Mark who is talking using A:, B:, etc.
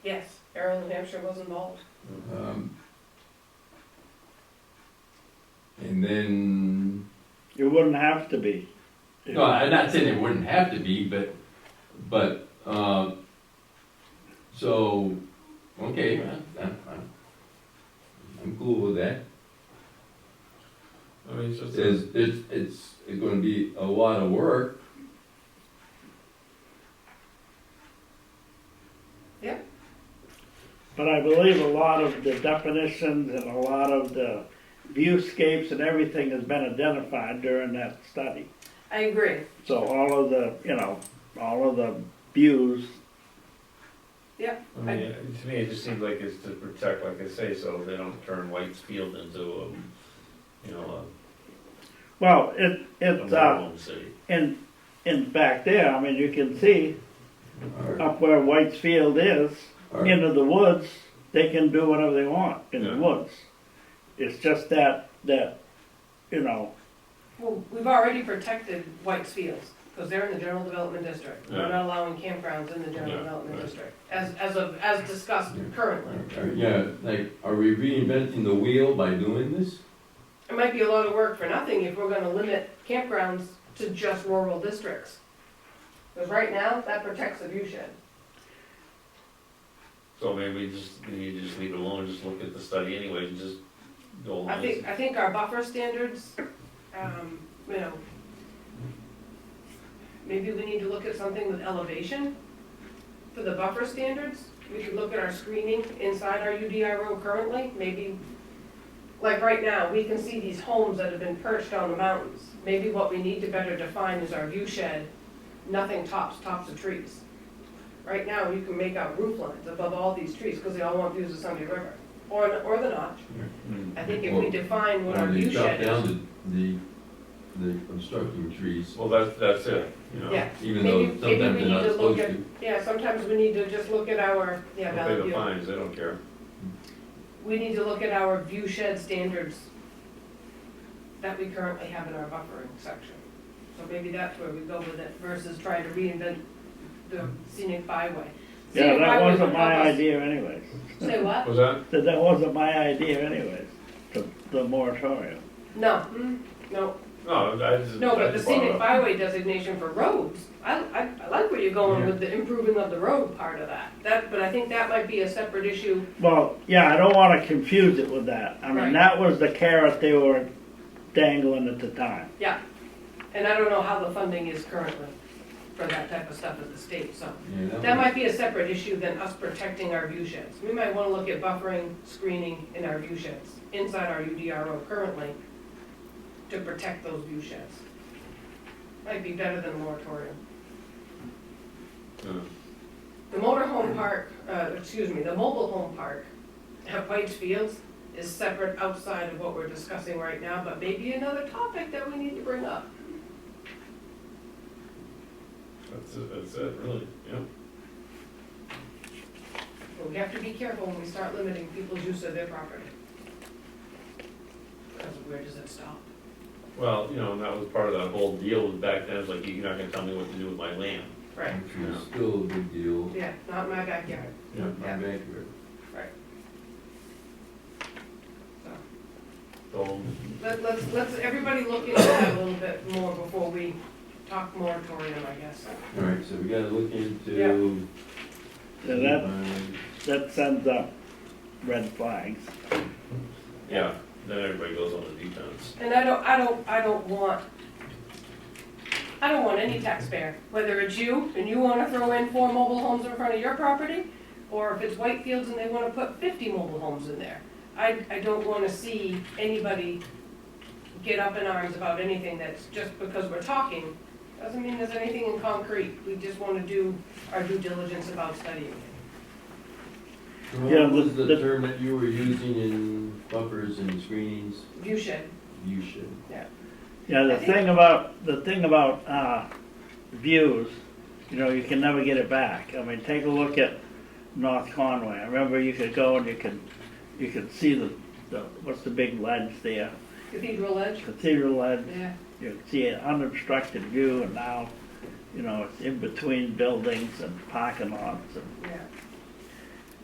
A: Yes, Arrow, New Hampshire was involved.
B: Um, And then,
C: It wouldn't have to be.
B: no, I'm not saying it wouldn't have to be, but, but, um, so, okay, I'm, I'm, I'm cool with that.
D: I mean, it's just,
B: There's, it's, it's, it's gonna be a lot of work.
C: But I believe a lot of the definitions and a lot of the viewscapes and everything has been identified during that study.
A: I agree.
C: So all of the, you know, all of the views,
D: I mean, to me, it just seems like it's to protect, like I say, so they don't turn White's Field into a, you know,
C: well, it,
D: a, a
C: it's, uh,
D: model city.
C: in, in back there, I mean, you can see up where White's Field is,
B: Or-
C: into the woods, they can do whatever they want in the
D: Yeah.
C: woods. It's just that, that, you know,
A: Well, we've already protected White's Fields, because they're in the general development district. We're not allowing campgrounds in the general
D: Yeah,
A: development
D: right.
A: district, as, as of, as discussed
B: Yeah.
A: currently.
B: or- or, Yeah, like, are we reinventing the wheel by doing this?
A: It might be a lot of work for nothing if we're gonna limit campgrounds to just rural districts. Because right now, that protects the view shed.
D: So maybe we just, we need to just leave it alone, just look at the study anyway, and just go along.
A: I think, I think our buffer standards, um, you know, maybe we need to look at something with elevation for the buffer standards. We could look at our screening inside our UDRO currently, maybe, like right now, we can see these homes that have been perched on the mountains. Maybe what we need to better define is our view shed, nothing tops, tops of trees. Right now, you can make out roof lines above all these trees, because they all want views of Sunday River, or, or the notch.
D: Hmm.
A: I think if we define what our
B: Or they
A: view
B: chop
A: shed is.
B: down the, the, the obstructing trees,
D: Well, that's, that's it, you know.
A: Yeah,
B: even though
A: Maybe- maybe
B: sometimes
A: we
B: they're
A: need
B: not
A: to look
B: supposed
A: at-
B: to.
A: yeah, sometimes we need to just look at our, yeah,
D: They'll pay
A: valid
D: the
A: view.
D: fines, they don't care.
A: We need to look at our view shed standards that we currently have in our buffering section. So maybe that's where we go with it versus trying to reinvent the scenic byway.
C: yeah,
A: Scenic
C: that
A: byway
C: wasn't
A: would
C: my
A: help us-
C: idea anyways.
A: Say what?
D: Was that?
C: That that wasn't my idea anyways, the, the moratorium.
A: No,
C: Hmm?
A: mm, no,
D: No, I just.
A: no,
D: I
A: but the
D: just brought it
A: scenic
D: up.
A: byway designation for roads, I, I, I like where you're going
B: Yeah.
A: with the improving of the road part of that. That, but I think that might be a separate issue
C: Well, yeah, I don't wanna confuse it with that. I
A: Right.
C: mean, that was the carrot they were dangling at the time.
A: And I don't know how the funding is currently for that type of stuff at the state, so.
B: Yeah,
A: That
B: one-
A: might be a separate issue than us protecting our view sheds. We might wanna look at buffering, screening in our view sheds, inside our UDRO currently, to protect those view sheds. Might be better than a moratorium.
D: Yeah.
A: The motorhome park, uh, excuse me, the mobile home park at White's Fields is separate outside of what we're discussing right now, but maybe another topic that we need to bring up.
D: That's it, that's it, really, yeah.
A: But we have to be careful when we start limiting people's use of their property. Because where does it stop?
D: Well, you know, and that was part of that whole deal with back then, it's like, you're not gonna tell me what to do with my land.
A: Right,
B: Which is still a big deal.
A: yeah, not in my backyard,
D: Yeah.
B: Not
A: Yeah.
B: accurate.
A: so.
D: So,
A: Let, let's, let's, everybody look into that a little bit more before we talk moratorium, I guess.
B: All right, so we gotta look into.
A: Yeah.
C: So that,
B: Um,
C: that sends up red flags.
D: yeah, then everybody goes on the defense.
A: And I don't, I don't, I don't want, I don't want any taxpayer, whether it's you and you wanna throw in four mobile homes in front of your property, or if it's Whitefields and they wanna put fifty mobile homes in there. I, I don't wanna see anybody get up in arms about anything that's just because we're talking, doesn't mean there's anything in concrete. We just wanna do our due diligence about studying it.
B: so
C: Yeah,
B: What was
C: the-
B: the
C: the-
B: term that you were using in buffers and screenings?
A: View shed,
B: You should.
C: Yeah, the thing about, the thing about, uh, views, you know, you can never get it back. I mean, take a look at North Conway. I remember you could go and you could, you could see the, the, what's the big ledge there?
A: cathedral edge,
C: Cathedral ledge.
A: yeah,
C: You can see an unobstructed view and now, you know, it's in between buildings and parking lots and
A: yeah.